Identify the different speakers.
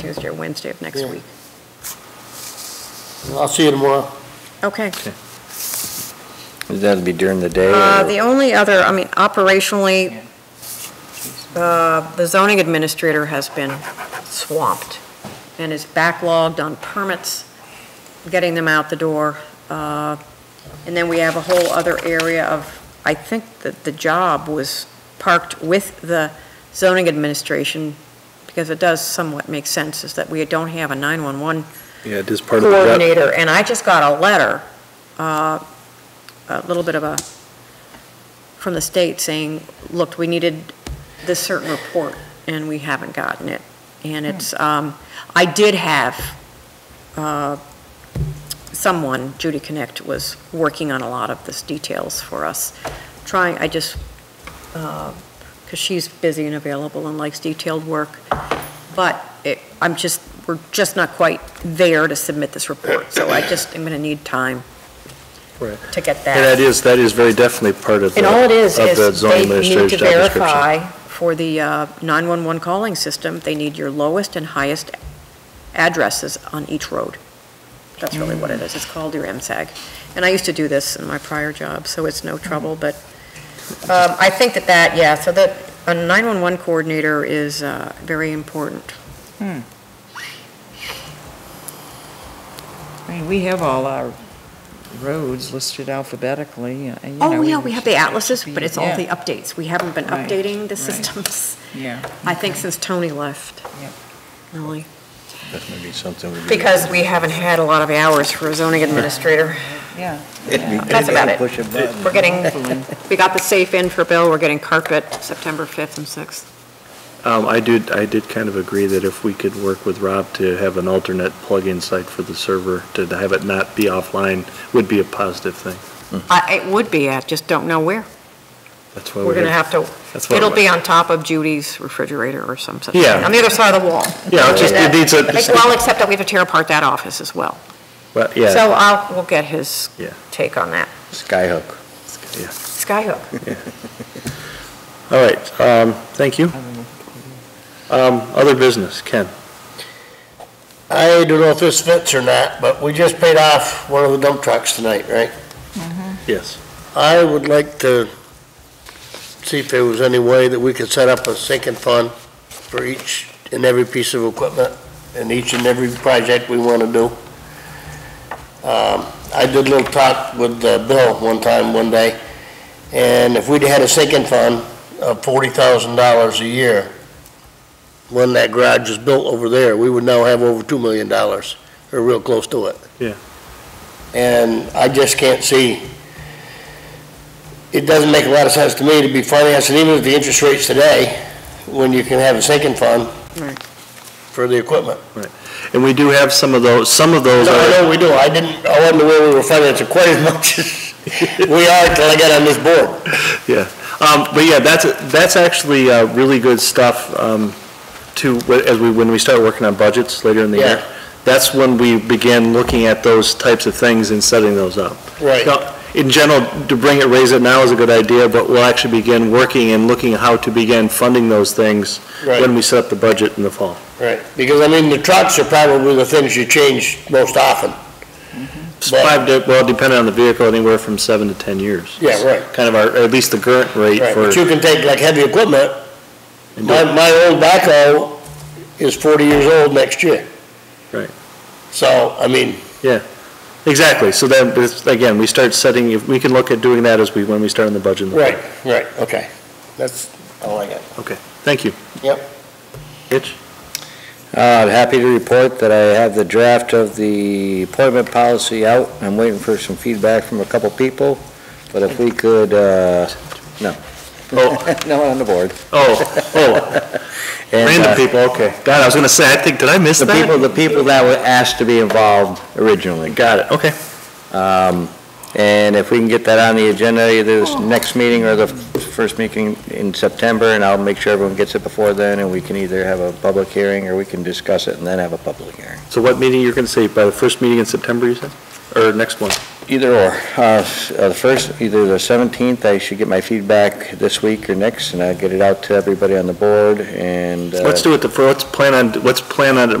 Speaker 1: Tuesday or Wednesday of next
Speaker 2: Yeah.
Speaker 1: week.
Speaker 2: I'll see you tomorrow.
Speaker 1: Okay.
Speaker 3: That'd be during the day?
Speaker 1: Uh,
Speaker 3: or-
Speaker 1: The only other, I mean, operationally, uh, the zoning administrator has been swamped and is backlogged on permits, getting them out the door. Uh, And then we have a whole other area of, I think that the job was parked with the zoning administration, because it does somewhat make sense, is that we don't have a 911
Speaker 4: Yeah, it is part of the rep.
Speaker 1: coordinator, and I just got a letter, uh, a little bit of a, from the state saying, look, we needed this certain report, and we haven't gotten it. And it's, um, I did have uh, someone, Judy Connect, was working on a lot of this details for us, trying, I just, because she's busy and available and likes detailed work, but it, I'm just, we're just not quite there to submit this report, so I just, I'm going to need time
Speaker 4: Right.
Speaker 1: to get
Speaker 4: And that
Speaker 1: that.
Speaker 4: is, that is very definitely part of the,
Speaker 1: And all it is,
Speaker 4: of the
Speaker 1: is
Speaker 4: zoning
Speaker 1: they need
Speaker 4: administrator's
Speaker 1: to
Speaker 4: job description.
Speaker 1: verify for the uh, 911 calling system, they need your lowest and highest addresses on each road. That's really what it is, it's called your MSAG. And I used to do this in my prior job, so it's no trouble, but um, I think that that, yeah, so that, a 911 coordinator is uh, very important.
Speaker 5: I mean, we have all our roads listed alphabetically, and, you know.
Speaker 1: Oh, yeah, we have the atlases, but it's all
Speaker 5: Yeah.
Speaker 1: the updates. We haven't been
Speaker 5: Right,
Speaker 1: updating the
Speaker 5: right.
Speaker 1: systems,
Speaker 5: Yeah.
Speaker 1: I think, since Tony left.
Speaker 5: Yep.
Speaker 1: Really.
Speaker 3: That may be something we'd be-
Speaker 1: Because we haven't had a lot of hours for a zoning administrator.
Speaker 5: Yeah.
Speaker 1: That's about it.
Speaker 3: Push a button.
Speaker 1: We're getting, we got the safe in for Bill, we're getting carpet September 5th and 6th.
Speaker 4: Um, I did, I did kind of agree that if we could work with Rob to have an alternate plug-in site for the server, to have it not be offline, would be a positive thing.
Speaker 1: I- It would be, I just don't know where.
Speaker 4: That's why
Speaker 1: We're going to have to,
Speaker 4: Oh, That's why
Speaker 1: it'll
Speaker 4: we're-
Speaker 1: be on top of Judy's refrigerator or some such.
Speaker 4: Yeah.
Speaker 1: thing, On the other side of the wall.
Speaker 4: Yeah, it just, it needs a,
Speaker 1: Like, Well, except that we have to tear apart that office as well.
Speaker 4: but,
Speaker 1: So
Speaker 4: yeah,
Speaker 1: I'll, we'll get his
Speaker 4: Yeah.
Speaker 1: take on that.
Speaker 3: Skyhook.
Speaker 1: Skyhook.
Speaker 4: all right, um, thank you. Um, other business, Ken?
Speaker 2: I don't know if this fits or not, but we just paid off one of the dump trucks tonight, right?
Speaker 4: Yes.
Speaker 2: I would like to see if there was any way that we could set up a sinking fund for each and every piece of equipment and each and every project we want to do. Um, I did a little talk with uh, Bill one time, one day, and if we'd had a sinking fund of forty thousand dollars a year, when that garage was built over there, we would now have over two million dollars, or real close to it.
Speaker 4: Yeah.
Speaker 2: And I just can't see it doesn't make a lot of sense to me to be financing, even at the interest rates today, when you can have a sinking fund
Speaker 1: Right.
Speaker 2: for the equipment.
Speaker 4: And we do have some of those, some of those
Speaker 2: No,
Speaker 4: are.
Speaker 2: I know we do, I didn't, I wasn't aware we were financing quite as much as we are till I got on this board.
Speaker 4: Um, But yeah, that's, that's actually uh, really good stuff um, to, as we, when we start working on budgets later in the
Speaker 2: Yeah.
Speaker 4: year. That's when we begin looking at those types of things and setting those up. Now, In general, to bring it, raise it now is a good idea, but we'll actually begin working and looking how to begin funding those things when
Speaker 2: Right,
Speaker 4: we set up the budget in the fall.
Speaker 2: right, because I mean, the trucks are probably the things you change most often.
Speaker 4: It's Five, to- well, depending on the vehicle, anywhere from seven to 10 years.
Speaker 2: Yeah, right.
Speaker 4: Kind of our, at least the current rate
Speaker 2: Right,
Speaker 4: for.
Speaker 2: but you can take like heavy equipment, my, my old backhoe is forty years old next year.
Speaker 4: Right.
Speaker 2: So, I mean,
Speaker 4: Exactly, so then, this- again, we start setting, if we can look at doing that as we, when we start on the budget. in the fall.
Speaker 2: right, right, okay, that's all I got.
Speaker 4: Thank you.
Speaker 2: Yep.
Speaker 4: Itch?
Speaker 3: Uh, I'm happy to report that I have the draft of the appointment policy out. I'm waiting for some feedback from a couple people, but if we could, uh, no.
Speaker 4: Oh.
Speaker 3: No, on the board.
Speaker 4: Oh, oh,
Speaker 3: And, uh,
Speaker 4: random people, okay. God, I was gonna say, I think, did I miss
Speaker 3: The
Speaker 4: that?
Speaker 3: people, the people that were asked to be involved originally.
Speaker 4: Got it, okay.
Speaker 3: Um, And if we can get that on the agenda, either this next meeting or the first meeting in September, and I'll make sure everyone gets it before then, and we can either have a public hearing, or we can discuss it and then have a public hearing.
Speaker 4: So what meeting you're gonna say, by the first meeting in September, you said? Or next one?
Speaker 3: Either or. Uh, s- uh, The first, either the 17th, I should get my feedback this week or next, and I'll get it out to everybody on the board, and... uh,
Speaker 4: Let's do it, the fir- let's plan on, let's plan on it